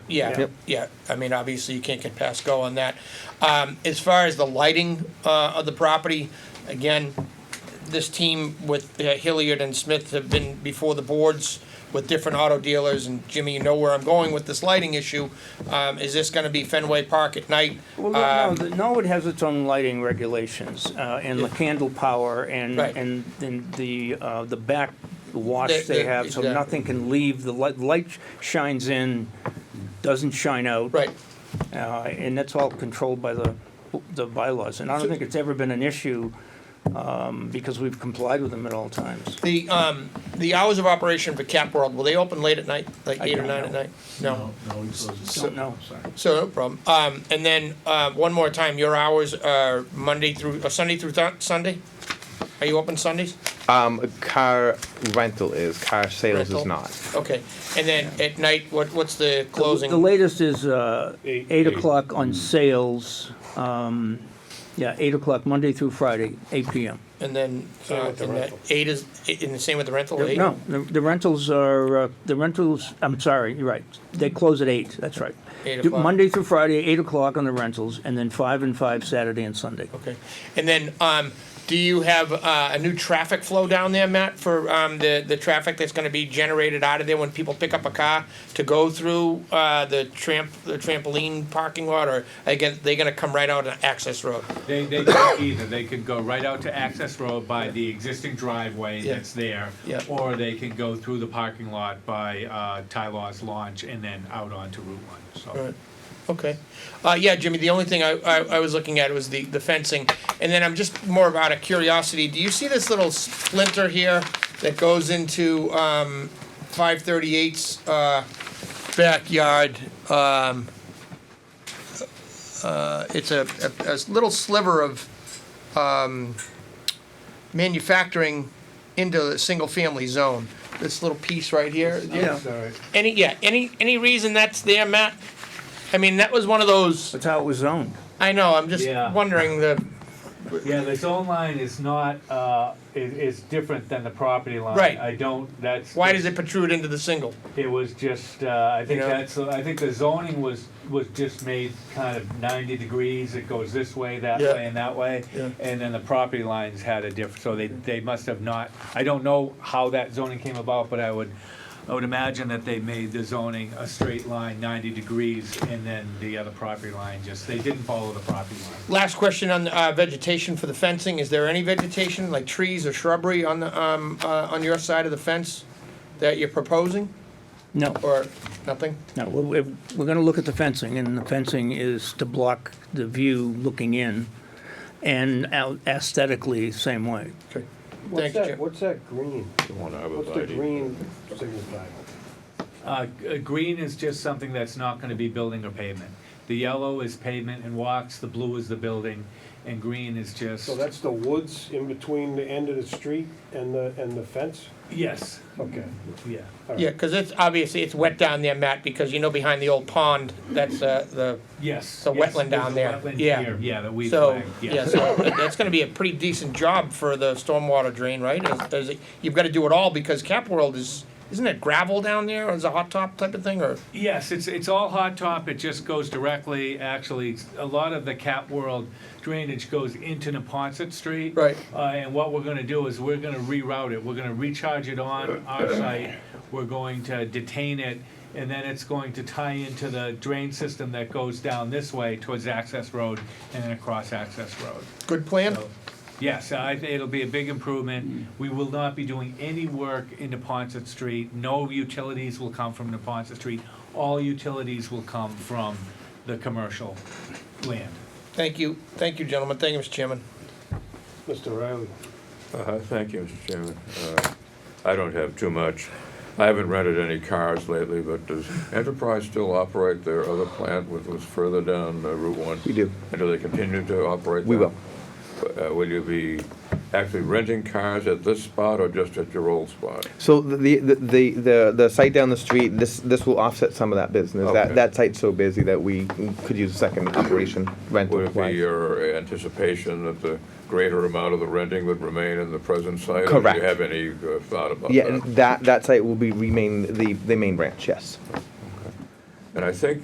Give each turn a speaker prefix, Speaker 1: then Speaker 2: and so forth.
Speaker 1: Yeah,
Speaker 2: Yep.
Speaker 1: yeah. I mean, obviously, you can't get past go on that. Um, As far as the lighting uh, of the property, again, this team with uh, Hilliard and Smith have been before the boards with different auto dealers, and Jimmy, you know where I'm going with this lighting issue. Um, Is this gonna be Fenway Park at night?
Speaker 2: Well,
Speaker 1: Um,
Speaker 2: no, the Norwood has its own lighting regulations, uh, and the candle power and,
Speaker 1: Right.
Speaker 2: and, and the, uh, the back wash
Speaker 1: The-
Speaker 2: they
Speaker 1: the-
Speaker 2: have, so
Speaker 1: exactly.
Speaker 2: nothing can leave, the light, light shines in, doesn't shine out.
Speaker 1: Right,
Speaker 2: Uh, and that's all controlled by the, the bylaws, and I don't think it's ever been an issue, um, because we've complied with them at all times.
Speaker 1: the, um, the hours of operation for Cap World, will they open late at night, like
Speaker 2: I
Speaker 1: eight or
Speaker 2: don't
Speaker 1: nine at
Speaker 2: know.
Speaker 1: night? No?
Speaker 3: No, he closes.
Speaker 2: Don't know.
Speaker 3: Sorry.
Speaker 1: So, no problem. Um, And then, uh, one more time, your hours are Monday through, uh, Sunday through Thun- Sunday? Are you open Sundays?
Speaker 4: Um, car rental is, car sales
Speaker 1: Rental.
Speaker 4: is not.
Speaker 1: Okay, and then at night, what, what's the
Speaker 2: The
Speaker 1: closing?
Speaker 2: latest is uh,
Speaker 5: Eight-
Speaker 2: eight
Speaker 5: eight.
Speaker 2: o'clock on sales, um, yeah, eight o'clock, Monday through Friday, eight PM.
Speaker 1: And then, uh,
Speaker 5: Same with the
Speaker 1: and that
Speaker 5: rental.
Speaker 1: eight is, and the same with the rental, eight?
Speaker 2: No, the- the rentals are, uh, the rentals, I'm sorry, you're right, they close at eight, that's right.
Speaker 1: Eight
Speaker 2: Do-
Speaker 1: o'clock.
Speaker 2: Monday through Friday, eight o'clock on the rentals, and then five and five Saturday and Sunday.
Speaker 1: Okay, and then, um, do you have, uh, a new traffic flow down there, Matt, for, um, the, the traffic that's gonna be generated out of there when people pick up a car to go through, uh, the tramp, the trampoline parking lot, or again, they're gonna come right out on access road?
Speaker 6: They, they could either, they could go right out to access road by the existing driveway
Speaker 1: Yeah.
Speaker 6: that's there.
Speaker 1: Yeah.
Speaker 6: Or they can go through the parking lot by, uh, Ty Law's launch and then out onto Route One, so.
Speaker 1: Right. Okay. Uh, yeah, Jimmy, the only thing I, I, I was looking at was the, the fencing. And then I'm just more of out of curiosity, do you see this little splinter here that goes into, um, five thirty-eight's, uh, backyard? Um, uh, it's a, a, a little sliver of, um, manufacturing into the single-family zone. This little piece right here. Do you-
Speaker 2: Yeah.
Speaker 3: Sorry.
Speaker 1: any, yeah, any, any reason that's there, Matt? I mean, that was one of those,
Speaker 2: That's how it was zoned.
Speaker 1: I know, I'm just
Speaker 6: Yeah.
Speaker 1: wondering the,
Speaker 6: Yeah, the zone line is not, uh, is, is different than the property line.
Speaker 1: Right.
Speaker 6: I don't, that's.
Speaker 1: why does it protrude into the single?
Speaker 6: It was just, uh, I think
Speaker 1: Yeah.
Speaker 6: that's, I think the zoning was, was just made kind of ninety degrees, it goes this way, that
Speaker 1: Yeah.
Speaker 6: way, and that way.
Speaker 1: Yeah.
Speaker 6: And then the property lines had a diff, so they, they must have not, I don't know how that zoning came about, but I would, I would imagine that they made the zoning a straight line, ninety degrees, and then the other property line just, they didn't follow the property line.
Speaker 1: Last question on, uh, vegetation for the fencing, is there any vegetation, like trees or shrubbery on the, um, uh, on your side of the fence that you're proposing,
Speaker 2: No,
Speaker 1: or nothing?
Speaker 2: no, we're, we're- we're gonna look at the fencing, and the fencing is to block the view looking in, and out aesthetically, same way.
Speaker 1: Okay.
Speaker 3: What's
Speaker 1: Thank you,
Speaker 3: that,
Speaker 1: Jim.
Speaker 3: what's that green? What's the green signify?
Speaker 6: Uh, g- uh, green is just something that's not gonna be building or pavement. The yellow is pavement and walks, the blue is the building, and green is just.
Speaker 3: So that's the woods in between the end of the street and the, and the fence?
Speaker 6: Yes,
Speaker 3: Okay.
Speaker 6: yeah.
Speaker 1: Yeah, cause it's, obviously, it's wet down there, Matt, because you know behind the old pond, that's, uh, the,
Speaker 6: Yes.
Speaker 1: The
Speaker 6: yes,
Speaker 1: wetland down
Speaker 6: there's a
Speaker 1: there,
Speaker 6: wetland
Speaker 1: yeah.
Speaker 6: here, Yeah, that we
Speaker 1: So,
Speaker 6: flagged,
Speaker 1: yeah,
Speaker 6: yes.
Speaker 1: so that's gonna be a pretty decent job for the stormwater drain, right? Is- is it- You've gotta do it all because Cap World is, isn't it gravel down there or is it a hot top type of thing or?
Speaker 6: Yes, it's, it's all hot top, it just goes directly, actually, a lot of the Cap World drainage goes into Neponset Street.
Speaker 1: Right.
Speaker 6: Uh, and what we're gonna do is we're gonna reroute it, we're gonna recharge it on our site, we're going to detain it, and then it's going to tie into the drain system that goes down this way towards Access Road and then across Access Road.
Speaker 1: Good plan?
Speaker 6: So, Yes, I, think it'll be a big improvement. We will not be doing any work in Neponset Street. No utilities will come from Neponset Street. All utilities will come from the commercial land.
Speaker 1: Thank you, thank you, gentlemen, thank you, Mr. Chairman.
Speaker 3: Mr. Riley?
Speaker 7: Uh, Thank you, Mr. Chairman. Uh, I don't have too much. I haven't rented any cars lately, but does Enterprise still operate their other plant which was further down uh, Route 1?
Speaker 4: We do.
Speaker 7: And do they continue to operate that?
Speaker 4: We will.
Speaker 7: Uh, Will you be actually renting cars at this spot or just at your old spot?
Speaker 4: So the, the, the, the, the site down the street, this, this will offset some of that business. That,
Speaker 7: Okay.
Speaker 4: that site's so busy that we could use a second operation rental.
Speaker 7: Would it be your anticipation that the greater amount of the renting would remain in the present site? Or do
Speaker 4: Correct.
Speaker 7: you have any uh, thought about that?
Speaker 4: Yeah, and that, that site will be remain the, the main branch, yes.
Speaker 7: And I think